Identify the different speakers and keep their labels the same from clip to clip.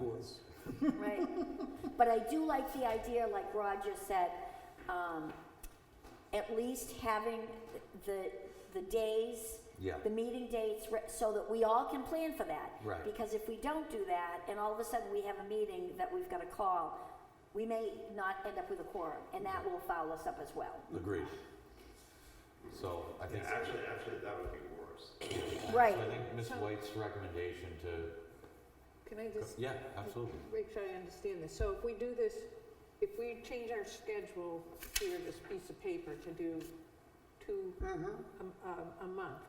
Speaker 1: rules.
Speaker 2: Right. But I do like the idea, like Roger said, um, at least having the, the days,
Speaker 1: Yeah.
Speaker 2: the meeting dates, re- so that we all can plan for that.
Speaker 1: Right.
Speaker 2: Because if we don't do that, and all of a sudden we have a meeting that we've got to call, we may not end up with a quorum, and that will foul us up as well.
Speaker 1: Agreed. So I think,
Speaker 3: Yeah,
Speaker 1: so
Speaker 3: actually, actually, that would be worse.
Speaker 2: Right.
Speaker 1: I think Ms. White's recommendation to,
Speaker 4: Can I just
Speaker 1: yeah, absolutely.
Speaker 4: make sure I understand this? So if we do this, if we change our schedule here, this piece of paper, to do two
Speaker 2: Mm-hmm.
Speaker 4: a- a, a month,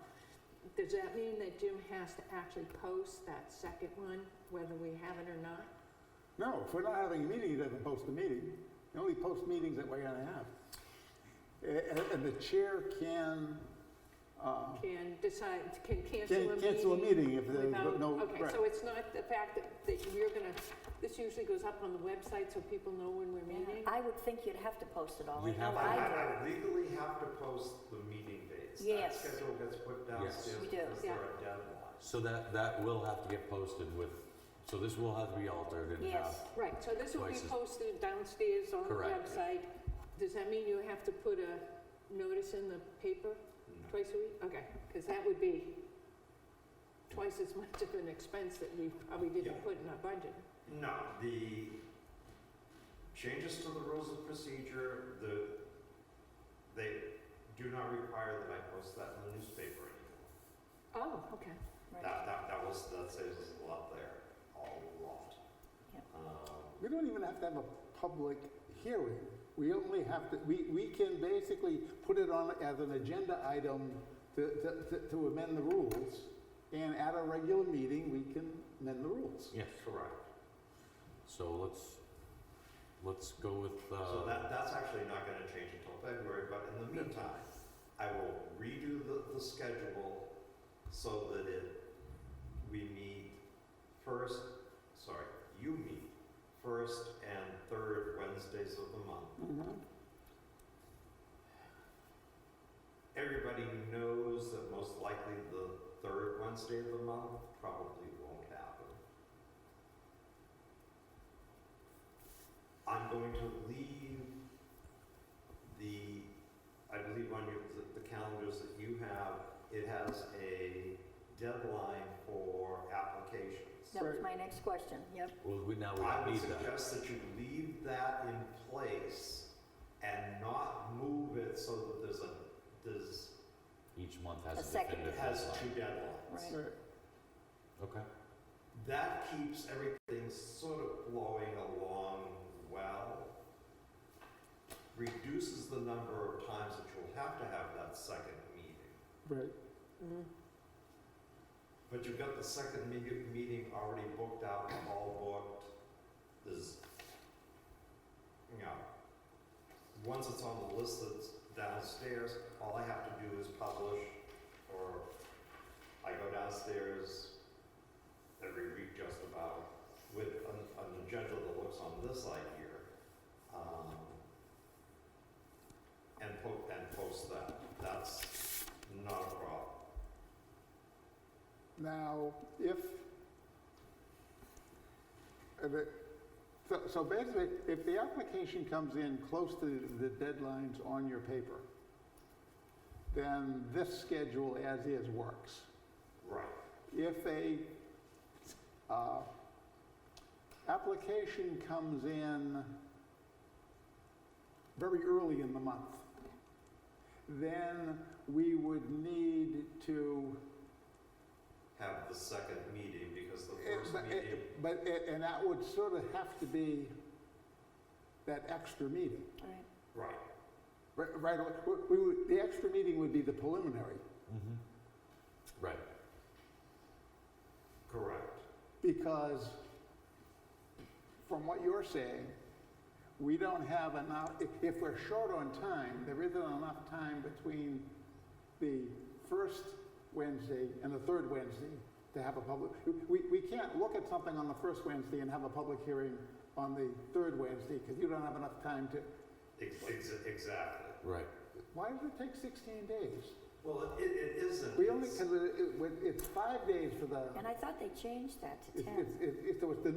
Speaker 4: does that mean that Jim has to actually post that second one, whether we have it or not?
Speaker 5: No, if we're not having a meeting, he doesn't post a meeting. You only post meetings that we're gonna have. A- And, and the chair can, uh,
Speaker 4: Can decide, can cancel a
Speaker 5: Can
Speaker 4: meeting?
Speaker 5: cancel a meeting if there's
Speaker 4: without-
Speaker 5: no-
Speaker 4: Okay,
Speaker 5: right.
Speaker 4: so it's not the fact that, that you're gonna, this usually goes up on the website so people know when we're meeting?
Speaker 2: I would think you'd have to post it all. I
Speaker 1: You'd
Speaker 2: know
Speaker 1: have
Speaker 3: I,
Speaker 1: to.
Speaker 2: I do.
Speaker 3: I I legally have to post the meeting dates.
Speaker 2: Yes.
Speaker 3: That schedule gets put downstairs
Speaker 2: We do,
Speaker 3: because there
Speaker 4: yeah.
Speaker 3: are deadlines.
Speaker 1: So that, that will have to get posted with, so this will have to be altered and uh, have.
Speaker 2: Yes.
Speaker 4: Right, so this will be
Speaker 1: Places.
Speaker 4: posted downstairs on the
Speaker 1: Correct.
Speaker 4: website. Does that mean you have to put a notice in the paper twice a week? Okay, because that would be twice as much of an expense that we probably
Speaker 3: Yeah.
Speaker 4: didn't put in our budget.
Speaker 3: No, the changes to the rules of procedure, the, they do not require that I post that in the newspaper anymore.
Speaker 4: Oh, okay.
Speaker 2: Right.
Speaker 3: That, that, that was, that saves us a lot there, a lot.
Speaker 2: Yep.
Speaker 3: Um,
Speaker 5: we don't even have to have a public hearing. We only have to, we, we can basically put it on as an agenda item to, to- to, to amend the rules. And at a regular meeting, we can amend the rules.
Speaker 1: Yes.
Speaker 3: Correct.
Speaker 1: So let's, let's go with,
Speaker 3: So
Speaker 1: uh,
Speaker 3: that, that's actually not gonna change until February, but in the meantime, I will redo the, the schedule so that it, we meet first, sorry, you meet first and third Wednesdays of the month.
Speaker 5: Mhm.
Speaker 3: Everybody knows that most likely the third Wednesday of the month probably won't happen. I'm going to leave the, I believe on your, the- the calendars that you have, it has a deadline for applications.
Speaker 2: That was my next question, yep.
Speaker 1: well, we, now
Speaker 3: I
Speaker 1: we
Speaker 3: would
Speaker 1: need that.
Speaker 3: suggest that you leave that in place and not move it so that there's a, there's,
Speaker 1: Each month has
Speaker 2: A
Speaker 1: a
Speaker 2: second.
Speaker 1: definitive
Speaker 3: has
Speaker 1: deadline.
Speaker 3: two deadlines.
Speaker 2: Right.
Speaker 5: Right.
Speaker 1: Okay,
Speaker 3: that keeps everything sort of flowing along well. Reduces the number of times that you'll have to have that second meeting.
Speaker 5: Right.
Speaker 4: Mm.
Speaker 3: But you've got the second me- meeting already booked out, all booked, there's, you know, once it's on the list that's downstairs, all I have to do is publish, or I go downstairs every week just about with an, an agenda that looks on this side here, um, and po- and post that, that's not a problem.
Speaker 5: Now, if, if it- so, so basically, if the application comes in close to the deadlines on your paper, then this schedule as is works.
Speaker 3: Right.
Speaker 5: If a, uh, application comes in very early in the month, then we would need to
Speaker 3: have the second meeting because the
Speaker 5: It-
Speaker 3: first
Speaker 5: But,
Speaker 3: meeting,
Speaker 5: it- but it- and that would sort of have to be that extra meeting,
Speaker 2: All right.
Speaker 3: right,
Speaker 5: right, right, away. We- we would, the extra meeting would be the preliminary,
Speaker 1: mm-hmm. Right,
Speaker 3: correct.
Speaker 5: because from what you're saying, we don't have enough, if, if we're short on time, there isn't enough time between the first Wednesday and the third Wednesday to have a public, we, we can't look at something on the first Wednesday and have a public hearing on the third Wednesday, because you don't have enough time to,
Speaker 3: Ex- ex- Exactly.
Speaker 1: right.
Speaker 5: Why does it take 16 days?
Speaker 3: Well, it, it isn't.
Speaker 5: We only,
Speaker 3: It's-
Speaker 5: because it, it- when- it's five days for the,
Speaker 2: And I thought they changed that to
Speaker 5: it's,
Speaker 2: ten.
Speaker 5: it's, it's, it's the